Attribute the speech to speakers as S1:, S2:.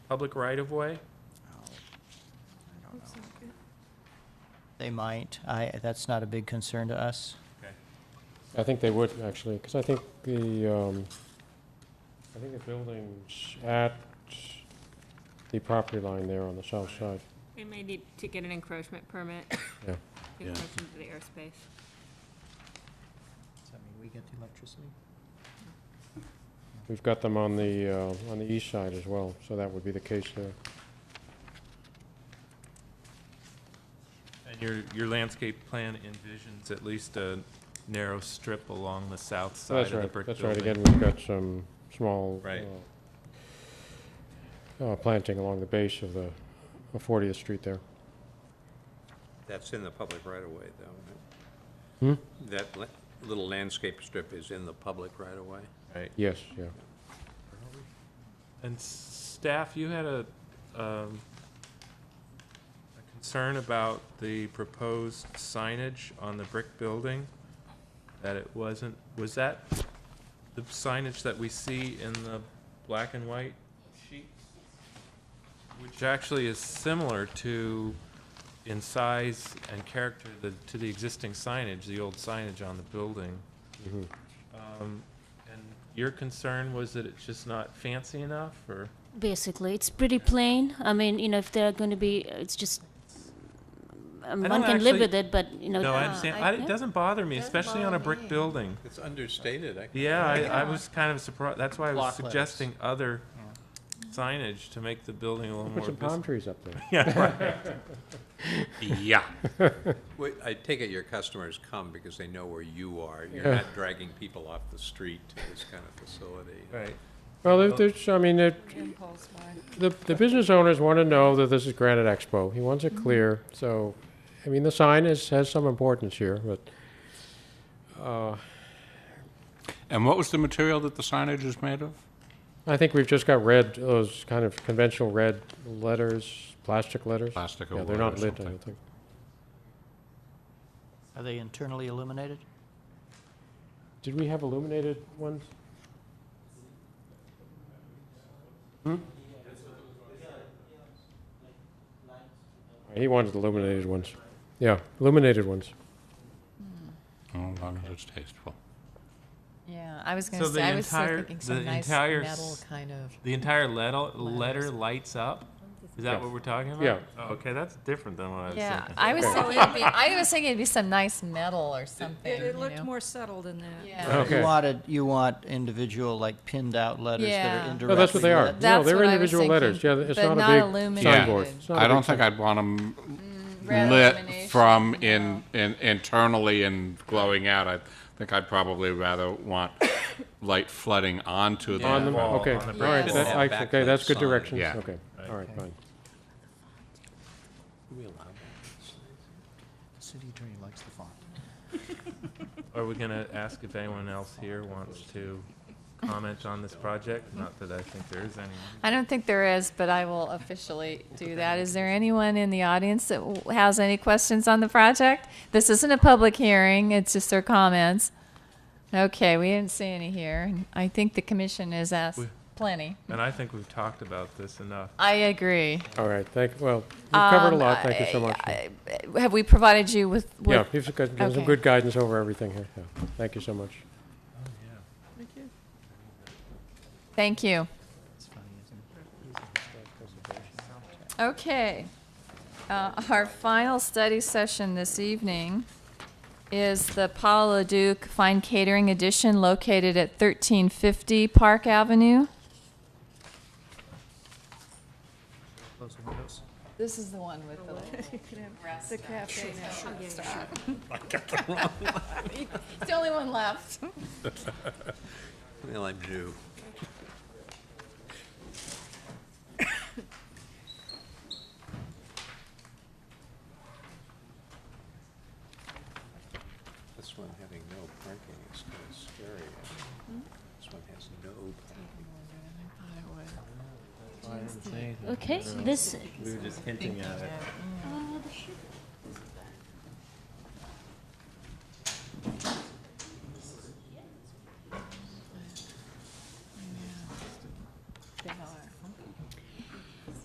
S1: public right-of-way?
S2: I don't know. They might. I, that's not a big concern to us.
S3: I think they would, actually, because I think the, um, I think the building's at the property line there on the south side.
S4: We may need to get an encroachment permit.
S3: Yeah.
S4: To
S5: Yeah.
S4: encroach into the airspace.
S2: Does that mean we get the electricity?
S3: We've got them on the, uh, on the east side as well, so that would be the case there.
S1: And your, your landscape plan envisions at least a narrow strip along the south
S3: So
S1: side
S3: That's
S1: of the
S3: right.
S1: brick
S3: That's
S1: building.
S3: right, again, we've got some small.
S1: Right.
S3: uh, uh, Planting along the base of the of 40th Street there.
S5: That's in the public right-of-way, though,
S3: Hmm?
S5: right? That la- little landscape strip is in the public right-of-way?
S1: Right.
S3: Yes, yeah.
S1: And staff, you had a, um, a concern about the proposed signage on the brick building, that it wasn't, was that the signage that we see in the black and white sheet? Which actually is similar to, in size and character, the, to the existing signage, the old signage on the building.
S3: Mhm.
S1: Um, And your concern was that it's just not fancy enough, or?
S6: Basically, it's pretty plain. I mean, you know, if they're going to be, it's just um,
S1: I don't
S6: one can live
S1: actually-
S6: with it, but you know.
S1: No, I
S6: uh,
S1: understand.
S6: I-
S1: I- It doesn't bother me,
S7: Doesn't
S1: especially on a
S7: bother
S1: brick
S7: me.
S1: building.
S5: It's understated, I.
S1: Yeah, I, I
S7: Yeah.
S1: was kind of surprised. That's why I was
S2: Block letters.
S1: suggesting other signage to make the building a little
S3: Put
S1: more
S3: some palm
S1: visible.
S3: trees up there.
S1: Yeah, right. Yeah.
S5: Wait, I take it your customers come because they know where you are. You're
S3: Yeah.
S5: not dragging people off the street to this kind of facility.
S1: Right.
S3: Well, there- there's, I mean, it,
S7: Impulse buy.
S3: The, the business owners want to know that this is Granite Expo. He wants
S7: Mm-hmm.
S3: it clear. So, I mean, the sign is, has some importance here, but, uh,
S8: And what was the material that the signage is made of?
S3: I think we've just got red, those kind of conventional red letters, plastic letters.
S8: Plastic or
S3: Yeah, they're
S8: wood or
S3: not lit, I
S8: something?
S3: don't think.
S2: Are they internally illuminated?
S3: Did we have illuminated ones? Hmm? He wanted illuminated ones. Yeah, illuminated ones.
S8: Oh, as long as it's tasteful.
S7: Yeah, I was
S1: So
S7: gonna
S1: the
S7: say, I was still
S1: entire-
S7: thinking
S1: the
S7: some nice
S1: entire
S7: metal
S1: s-
S7: kind of.
S1: The entire letter, letter
S7: Letters.
S1: lights up? Is that
S3: Yes.
S1: what we're talking about?
S3: Yeah.
S1: Oh, Okay, that's different than what I was
S7: Yeah,
S1: thinking.
S7: I was
S3: Okay.
S7: thinking, it'd be- I was thinking it'd be some nice metal or something,
S9: It,
S7: you
S9: it looked
S7: know?
S9: more subtle than that.
S7: Yeah.
S2: You
S3: Okay.
S2: wanted, you want individual, like pinned out letters that are
S7: Yeah.
S2: indirectly.
S3: No, Oh, that's what they are.
S2: lit.
S3: No,
S7: That's
S3: they're
S7: what I was
S3: individual letters. Yeah,
S7: thinking,
S3: it's
S7: but
S3: not a
S7: not
S3: big
S7: illuminated.
S3: signboard.
S7: Yeah.
S3: It's not a
S8: I
S3: big
S8: don't think
S3: sign.
S8: I'd want them
S7: Red
S8: Oh, lit
S7: illumination,
S8: from
S7: no.
S8: in, in, internally and glowing out. I think I'd probably rather want light flooding onto
S1: Yeah.
S3: On
S8: them.
S3: the,
S1: Wall,
S3: okay,
S1: on the
S3: all
S1: brick
S3: right,
S7: wall.
S3: that, I- okay,
S5: Backlit
S3: that's good
S5: sign.
S3: direction,
S8: Yeah.
S3: okay, all right, fine.
S5: Do we allow that?
S2: The City attorney likes the font.
S1: Are we gonna ask if anyone else here wants to comment on this project? Not that I think there is any.
S7: I don't think there is, but I will officially do that. Is there anyone in the audience that w- has any questions on the project? This isn't a public hearing, it's just their comments. Okay, we didn't see any here, and I think the commission has asked
S1: We-
S7: plenty.
S1: And I think we've talked about this enough.
S7: I agree.
S3: All right, thank, well, we've covered a
S7: Um,
S3: lot, thank you so much.
S7: I- I- Have we provided you with,
S3: Yeah,
S7: with
S3: you've got- given some
S7: okay.
S3: good guidance over everything here, yeah, thank you so much.
S7: Thank you.
S2: It's funny, isn't it?
S7: Okay. Uh, Our final study session this evening is the Paul LaDuke Fine Catering Edition located at 1350 Park Avenue.
S2: Close the windows.
S7: This is the one with the,
S9: You can have The cafe.
S7: it's the only one left.
S5: Well, I'm due. This one having no parking is kind of scary. This one has no parking.
S6: Okay, this.
S1: We were just hinting at it.
S6: uh, the ship-